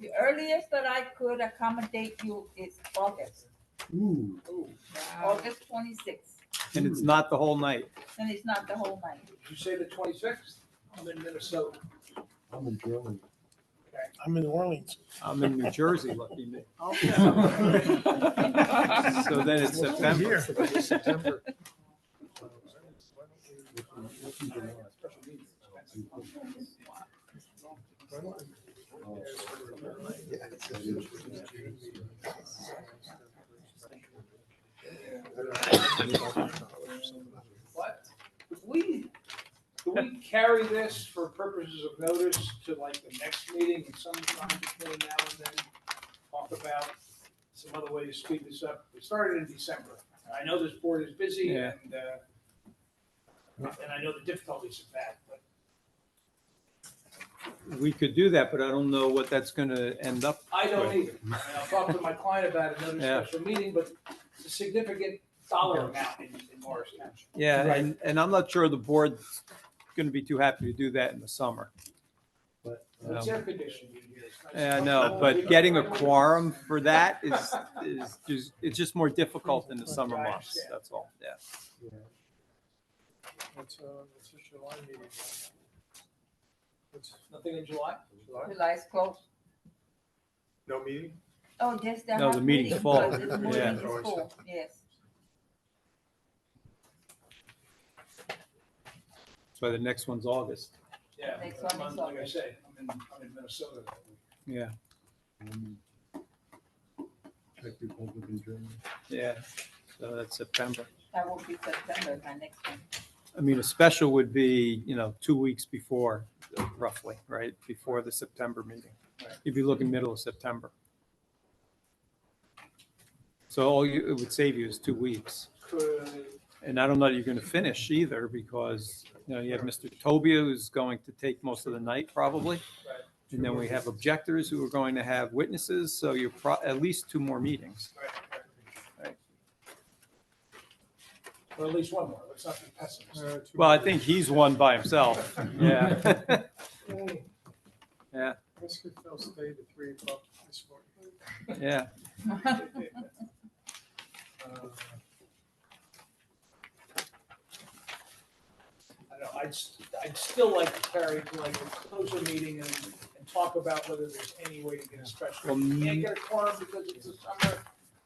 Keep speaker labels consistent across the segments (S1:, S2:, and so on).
S1: The earliest that I could accommodate you is August,
S2: Ooh,
S1: August twenty-sixth,
S3: And it's not the whole night.
S1: and it's not the whole night.
S4: You say the twenty-sixth? I'm in Minnesota.
S2: I'm in Germany.
S5: I'm in New Orleans.
S3: I'm in New Jersey, lucky me. So
S5: So
S3: then it's September.
S5: September.
S4: What? Do we, do we carry this for purposes of notice to like the next meeting and sometime between now and then? Talk about some other way to speed this up. We started in December. I know this board is busy
S3: Yeah.
S4: and, uh, and I know the difficulties of that, but
S3: We could do that, but I don't know what that's going to end up.
S4: I don't either. And I'll talk to my client about another
S3: Yeah.
S4: special meeting, but it's a significant dollar amount in, in Morris Township.
S3: Yeah,
S5: Right.
S3: and, and I'm not sure the board's going to be too happy to do that in the summer.
S4: It's air conditioned in here. It's nice.
S3: Um, Yeah, I know, but getting a quorum for that is, is, just it's just more difficult in the summer months, that's all, yeah.
S5: What's, uh, what's your July meeting? What's-
S4: Nothing in July?
S5: July?
S1: July's close.
S5: No meeting?
S1: Oh, yes, there
S3: No,
S1: are
S3: the
S1: meetings,
S3: meeting's full.
S1: but this morning
S3: Yeah.
S1: is full, Yes.
S3: So the next one's August.
S4: Yeah,
S1: Next one is
S4: I'm- like I
S1: August.
S4: say, I'm in, I'm in Minnesota. that week.
S3: Yeah,
S2: Czech Republic and Germany.
S3: yeah. So that's September.
S1: That will be September, my next one.
S3: I mean, a special would be, you know, two weeks before, roughly, right? Before the September meeting. If you look in middle of September. So all you, it would save you is two weeks.
S4: Could,
S3: And I don't know that you're going to finish either because, you know, you have Mr. Tobia who's going to take most of the night probably.
S4: Right.
S3: And then we have objectors who are going to have witnesses. So you're pro, at least two more meetings.
S4: right,
S3: Right.
S4: right. Or at least one more, let's not be pessimists.
S5: Uh, two
S3: Well, I
S5: meetings.
S3: think he's one by himself. Yeah. Yeah.
S5: Let's get Phil stayed at three o'clock this morning.
S3: Yeah.
S4: Uh, I don't know, I'd, s- I'd still like to carry to like a closer meeting and, and talk about whether there's any way to get a special. If we can't get a quorum because it's the summer,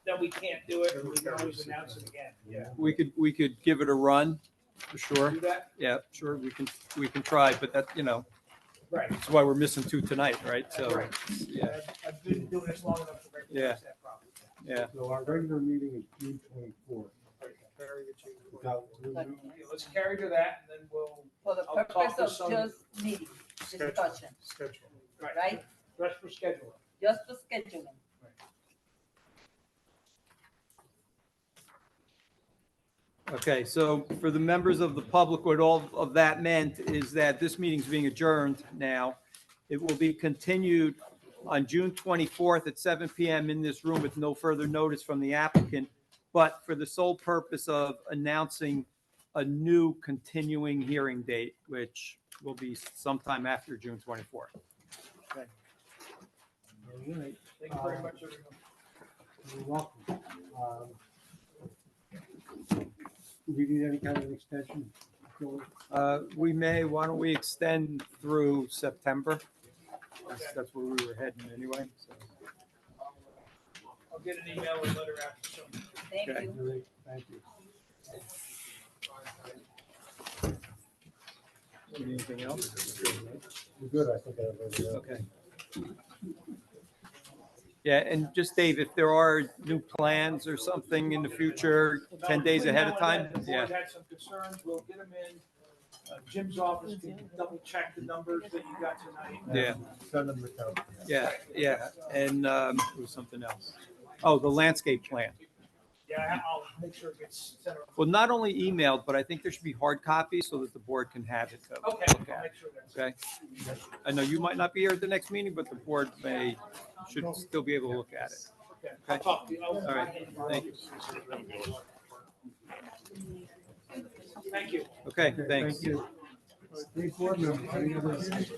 S4: then we can't do it, and we can always announce it again, yeah.
S3: We could, we could give it a run, for sure.
S4: Do that,
S3: Yeah, sure, we can, we can try, but that, you know,
S4: right.
S3: that's why we're missing two tonight, right? So,
S4: Right.
S3: yeah.
S4: I've- I've been doing this long enough to
S3: Yeah.
S4: recognize that problem.
S3: yeah,
S2: So our regular meeting is June twenty-fourth.
S5: Very good, June fourth.
S2: Without-
S1: But
S4: Okay, Let's carry to that, and then we'll,
S1: For the
S4: I'll talk to
S1: purpose of
S4: some-
S1: just meeting, discussion,
S5: Schedule.
S4: right,
S1: right?
S4: rest for scheduling.
S1: Just for scheduling.
S3: okay, so for the members of the public, what all of that meant is that this meeting's being adjourned now. It will be continued on June 24th at 7 PM in this room with no further notice from the applicant, but for the sole purpose of announcing a new continuing hearing date, which will be sometime after June 24th.
S2: All right.
S4: Thank you very much, everyone.
S2: You're welcome. Um, Do we need any kind of extension? Go-
S3: Uh, We may, why don't we extend through September? That's- That's where we were heading anyway. so.
S4: I'll get an email and letter after some.
S1: Thank
S3: Okay.
S1: you.
S2: all right, Thank you.
S3: Anything else?
S2: We're good, I think. I have everything else.
S3: Okay. Yeah, and just Dave, if there are new plans or something in the future, 10 days ahead of time?
S4: The
S3: Yeah,
S4: board had some concerns, we'll get them in. Uh, Jim's office can double check the numbers that you got tonight.
S3: Yeah.
S2: Send them the count.
S3: yeah, yeah. And um, there was something else. Oh, the landscape plan.
S4: Yeah, I'll make sure it gets sent around.
S3: Well, not only emailed, but I think there should be hard copies so that the board can have it. to
S4: Okay,
S3: look
S4: I'll
S3: at,
S4: make sure that's.
S3: Okay? I know you might not be here at the next meeting, but the board may, should still be able to look at it.
S4: Okay, I'll talk to you. I'll-
S3: All right, thank you.
S4: Thank you.
S3: Okay, thanks.
S2: Thank you. Three board members, any other-